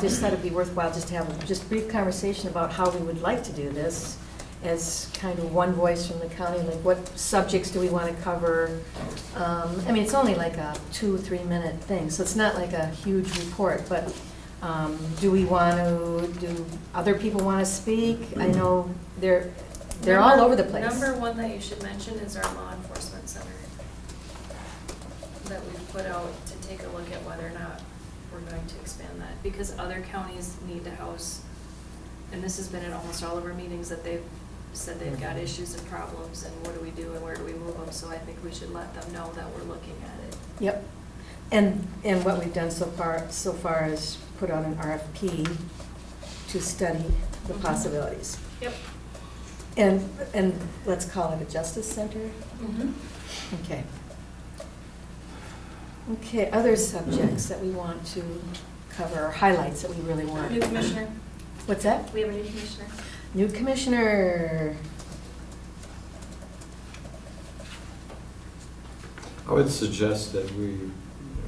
just thought it'd be worthwhile just to have a just brief conversation about how we would like to do this as kind of one voice from the county, like what subjects do we want to cover? Um, I mean, it's only like a two, three-minute thing, so it's not like a huge report, but um, do we want to, do other people want to speak? I know they're, they're all Number- over the place. Number one that you should mention is our law enforcement center that we've put out to take a look at whether or not we're going to expand that, because other counties need to house, and this has been at almost all of our meetings, that they've said they've got issues and problems, and what do we do and where do we move them, so I think we should let them know that we're looking at it. Yep. And, and what we've done so far, so far is put out an RFP to study the Mhm. possibilities. Yep. And, and let's call it a justice center? Mm-hmm. Okay. Okay, other subjects that we want to cover, or highlights that we really New want. commissioner, What's that? we have a new commissioner. New commissioner. I would suggest that we, you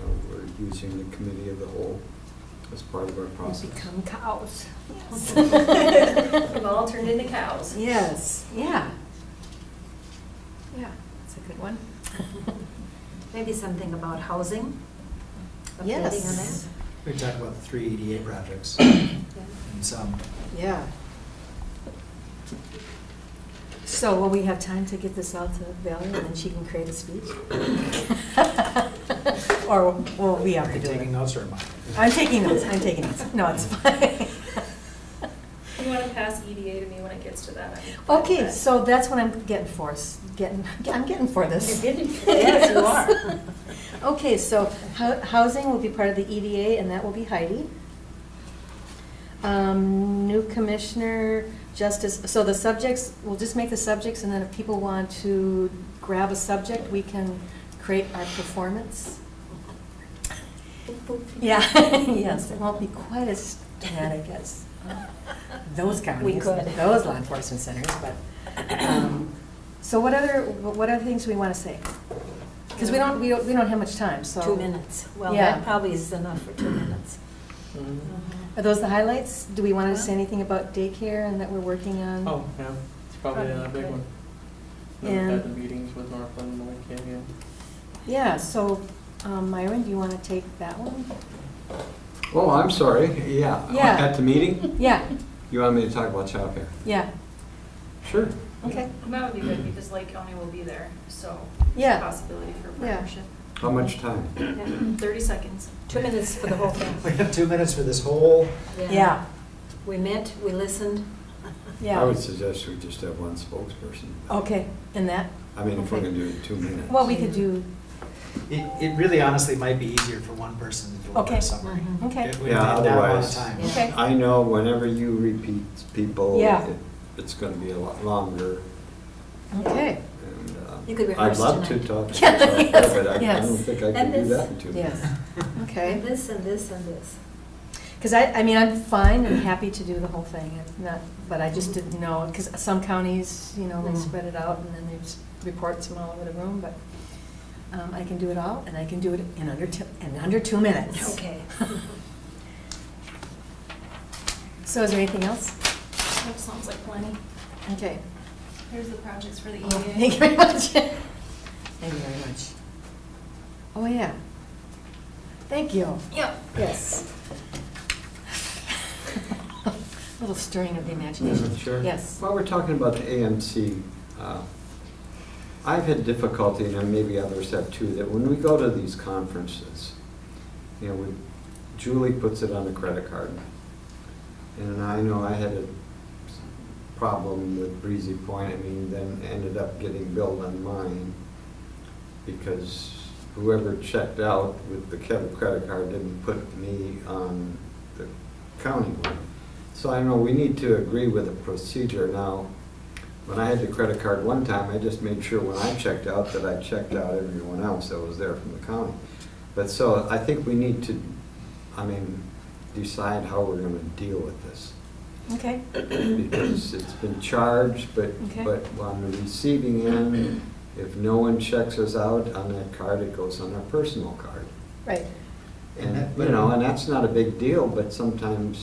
know, we're using the committee of the whole as part of our We process. become cows. We've all turned into cows. Yes, yeah. Yeah, that's a good one. Maybe something about housing? updating on that? Yes. We talked about the three EDA projects and some, Yeah. So will we have time to get this out to Valerie and then she can create a speech? Or will we are have to you do taking it? notes or am I? I'm taking notes, I'm taking notes. No, it's fine. You wanna pass EDA to me when it gets to that? I'm fine with Okay, that. so that's what I'm getting for, s- getting, I'm getting for this. You're getting for it. Yes, you are. Okay, so hou- housing will be part of the EDA, and that will be Heidi. Um, New commissioner, justice, so the subjects, we'll just make the subjects, and then if people want to grab a subject, we can create our performance. Yeah, yes, it won't be quite as dramatic as uh, those counties, could. those law enforcement centers, but, um, so what other, what other things we want to say? Because we don't, we don't, we don't have much time, so. Two minutes. Well, Yeah. that probably is enough for two minutes. Mm-hmm. Are those the highlights? Do we want to say anything about daycare and that we're working on? Oh, yeah, it's probably a big one. We've And- had the meetings with Northland and Lake Canyon. Yeah, so um, Myron, do you want to take that one? Oh, I'm sorry, yeah. Yeah. At the meeting, Yeah, you want me to talk about childcare? yeah, Sure. okay. That would be good, because Lake County will be there, so. it's a Yeah. Possibility for a Yeah. partnership. How much time? Thirty seconds. Two minutes for the whole We thing. have two minutes for this whole, Yeah, We met, we listened. I yeah. would suggest we just have one spokesperson. Okay, and that, I mean, if we're Okay. gonna do it in two minutes. well, we could do, it, it really honestly might be easier for one person to deliver Okay. Mm-hmm. a summary. Mhm. okay, If we Yeah, had that amount of otherwise- time. okay. I know whenever you repeat people, Yeah. it- it's gonna be a lot longer. Okay, and, uh, You could rehearse I'd love to tonight. talk to Yeah, childcare, yes, but I- I yes. don't think I And can do this- that in two minutes. yes, okay. And this, and this, and this. Because I, I mean, I'm fine and happy to do the whole thing, I'm not, but I just didn't know, because some counties, you know, they Mm. spread it out and then they just reports from all over the room, but um, I can do it all, and I can do it in under two, in under two minutes. Okay. So is there anything else? That sounds like plenty. Okay. Here's the projects for the E Oh, Thank you EDA. very much. Thank you very much. Oh, yeah. Thank you. Yep. Yes. Little stirring of the imagination. Sure. Yes. While we're talking about the AMC, uh, I've had difficulty, and maybe others have too, that when we go to these conferences, you know, we- Julie puts it on a credit card. And I know I had a problem with Breezy Point, I mean, then ended up getting billed on mine because whoever checked out with the Kev credit card didn't put me on the county one. So I know we need to agree with a procedure now. When I had the credit card one time, I just made sure when I checked out that I checked out everyone else that was there from the county. But so I think we need to, I mean, decide how we're gonna deal with this. Okay. Because it's been charged, but, Okay. but on the receiving end, if no one checks us out on that card, it goes on our personal card. Right. And And, that- you know, and that's not a big deal, but sometimes